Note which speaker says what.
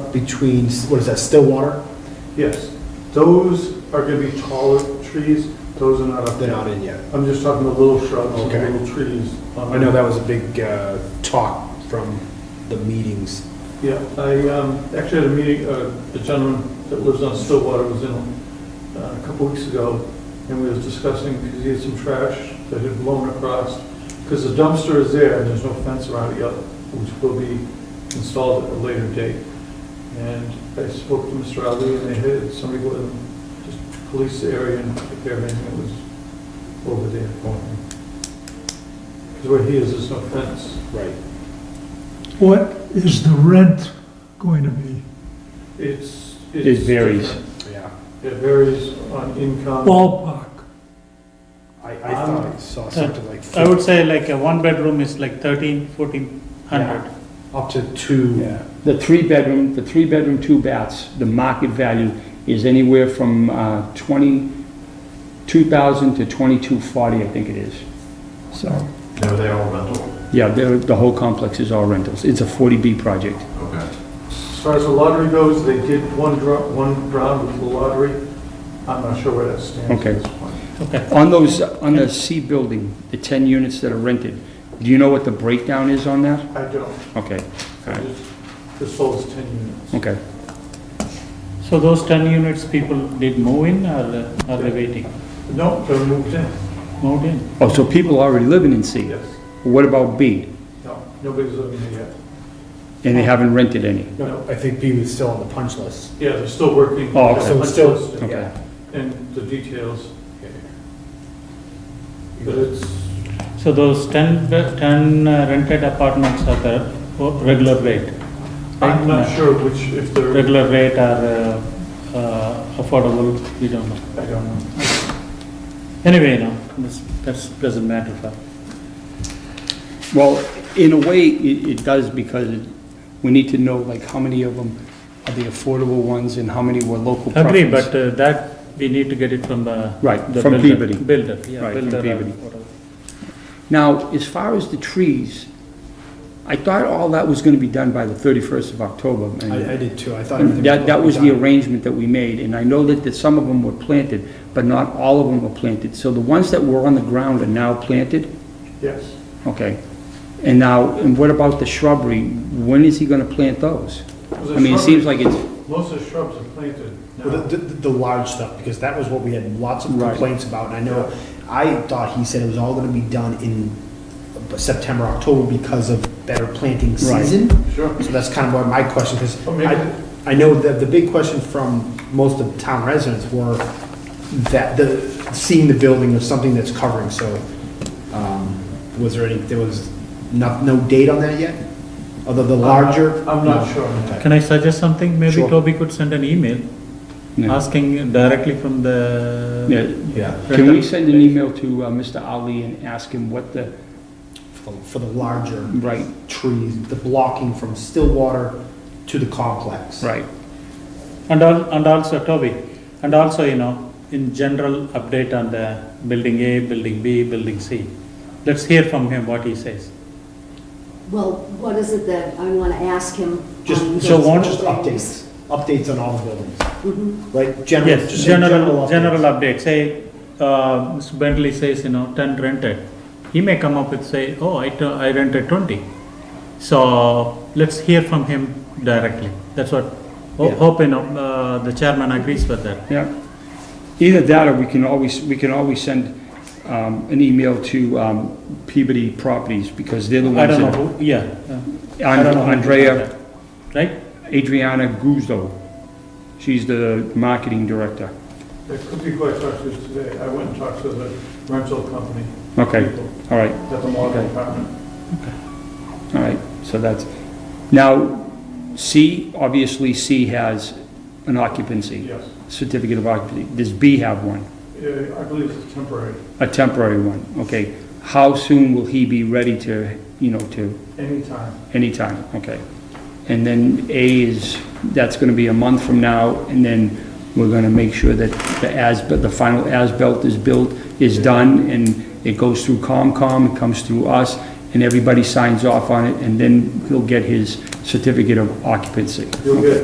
Speaker 1: up between, what is that, Stillwater?
Speaker 2: Yes, those are gonna be taller trees, those are not up
Speaker 1: They're
Speaker 2: there.
Speaker 1: not in yet.
Speaker 2: I'm just talking the little shrubs, and
Speaker 1: Okay.
Speaker 2: little trees.
Speaker 1: I know that was a big uh, talk from the meetings.
Speaker 2: Yeah, I um, actually had a meeting, uh, the gentleman that lives on Stillwater was in uh, a couple weeks ago, and we was discussing, because he had some trash that had blown across, because the dumpster is there, and there's no fence around it yet, which will be installed at a later date. And I spoke to Mr. Ali, and they had somebody go and just police the area and prepare anything that was over there for him. Because where he is, there's no fence.
Speaker 1: Right.
Speaker 3: What is the rent going to be?
Speaker 2: It's.
Speaker 4: It
Speaker 2: it's
Speaker 4: varies.
Speaker 2: different.
Speaker 1: Yeah.
Speaker 2: It varies on income.
Speaker 3: Ballpark,
Speaker 1: I, I thought I saw something like
Speaker 4: Um, I would say like a one bedroom is like thirteen, fourteen hundred.
Speaker 1: up to two.
Speaker 5: The three-bedroom, the three-bedroom, two baths, the market value is anywhere from uh, 20, 2,000 to 2240, I think it is. So,
Speaker 6: No, they all rental,
Speaker 5: yeah, the, the whole complex is all rentals. It's a 40B project.
Speaker 6: okay.
Speaker 2: As far as the lottery goes, they did one draw, one round with the lottery. I'm not sure where that stands
Speaker 5: Okay.
Speaker 2: at this point.
Speaker 4: Okay.
Speaker 5: On those, on the C building, the 10 units that are rented, do you know what the breakdown is on that?
Speaker 2: I don't.
Speaker 5: Okay,
Speaker 2: I
Speaker 5: Alright.
Speaker 2: just, this sold is 10 units.
Speaker 5: okay.
Speaker 4: So those ten units people did move in or uh, are they waiting?
Speaker 2: No, they're moved in,
Speaker 4: Moved in?
Speaker 5: Oh, so people are already living in C.
Speaker 2: yes.
Speaker 5: What about B?
Speaker 2: No, nobody's living there yet.
Speaker 5: And they haven't rented any?
Speaker 2: No,
Speaker 1: I think B was still on the punch list.
Speaker 2: yeah, they're still working.
Speaker 5: Oh, okay.
Speaker 1: So it's still,
Speaker 5: Okay.
Speaker 1: yeah.
Speaker 2: And the details, but
Speaker 1: But
Speaker 2: it's,
Speaker 4: So those ten, be- 10 uh, rented apartments are the o- regular rate?
Speaker 2: I'm
Speaker 4: right?
Speaker 2: not sure which, if they're, I
Speaker 4: Regular rate are uh, uh, affordable, we don't know.
Speaker 2: don't know.
Speaker 4: Anyway, no, this, that's, doesn't matter for.
Speaker 5: Well, in a way, it, it does because it- we need to know like how many of them are the affordable ones and how many were local preference.
Speaker 4: Agree, but uh, that, we need to get it from the.
Speaker 5: Right,
Speaker 4: the
Speaker 5: from
Speaker 4: builder-
Speaker 5: Peabody.
Speaker 4: Builder, yeah,
Speaker 5: Right, from
Speaker 4: builder or
Speaker 5: Peabody.
Speaker 4: whatever.
Speaker 5: Now, as far as the trees, I thought all that was gonna be done by the thirty-first of October. and-
Speaker 1: I, I did too. I thought. everything
Speaker 5: That, that was the
Speaker 1: done.
Speaker 5: arrangement that we made, and I know that, that some of them were planted, but not all of them were planted. So the ones that were on the ground are now planted?
Speaker 2: yes.
Speaker 5: Okay. And now, and what about the shrubbery? When is he gonna plant those? I mean, it seems like it's,
Speaker 2: Most of the shrubs are planted
Speaker 1: Well,
Speaker 2: now.
Speaker 1: The, the, the large stuff, because that was what we had lots of
Speaker 5: Right.
Speaker 1: complaints about, and I know, I thought he said it was all gonna be done in September, October because of better planting
Speaker 5: Right.
Speaker 1: season.
Speaker 2: Sure.
Speaker 1: So that's kind of what my question, because
Speaker 2: Or maybe-
Speaker 1: I, I know that the big question from most of the town residents were that the, seeing the building was something that's covering, so, um, was there any, there was not, no date on that yet? Although the larger?
Speaker 2: I'm not sure.
Speaker 1: Okay.
Speaker 4: Can I suggest something? Maybe
Speaker 1: Sure.
Speaker 4: Toby could send an email
Speaker 5: yeah.
Speaker 4: asking directly from the.
Speaker 5: Yeah,
Speaker 1: Yeah,
Speaker 5: Can we send an email to uh, Mr. Ali and ask him what the,
Speaker 1: for- for the larger.
Speaker 5: right,
Speaker 1: trees, the blocking from Stillwater to the complex.
Speaker 5: right,
Speaker 4: And al- and also Toby, and also, you know, in general, update on the building A, building B, building C. Let's hear from him what he says.
Speaker 7: Well, what is it that I want to ask him?
Speaker 1: Just,
Speaker 7: on
Speaker 1: Um, so
Speaker 7: those
Speaker 1: one, Mm-hmm. just
Speaker 7: buildings?
Speaker 1: updates, updates on all the buildings,
Speaker 7: Mhm.
Speaker 1: right? General,
Speaker 4: Yes,
Speaker 1: just
Speaker 4: general,
Speaker 1: updates.
Speaker 4: general update, say, uh, Mr. Bentley says, you know, ten rented. He may come up with say, oh, I t- I rented twenty. So, let's hear from him directly, that's what, ho-
Speaker 5: Yeah.
Speaker 4: hope, you know, uh, the chairman agrees with that.
Speaker 5: yeah. Either that, or we can always, we can always send um, an email to um, Peabody Properties, because they're the
Speaker 4: I
Speaker 5: ones
Speaker 4: don't know
Speaker 5: that...
Speaker 4: who, yeah. uh, I don't know who
Speaker 5: Andrea,
Speaker 4: contacted. Right?
Speaker 5: Adriana Guzzo, she's the marketing director.
Speaker 2: It could be quite tough to today. I went and talked to the rental company.
Speaker 5: Okay,
Speaker 2: people
Speaker 5: all right,
Speaker 2: At the model department.
Speaker 5: all right, so that's, now, C, obviously C has an occupancy,
Speaker 2: Yes.
Speaker 5: certificate of occupancy. Does B have one?
Speaker 2: Uh, I believe it's temporary.
Speaker 5: A temporary one, okay. How soon will he be ready to, you know, to,
Speaker 2: Anytime.
Speaker 5: anytime, okay? And then A is, that's gonna be a month from now, and then we're gonna make sure that the as, the final as-built is built, is done, and it goes through COMCOM, it comes through us, and everybody signs off on it, and then he'll get his certificate of occupancy.
Speaker 2: You'll get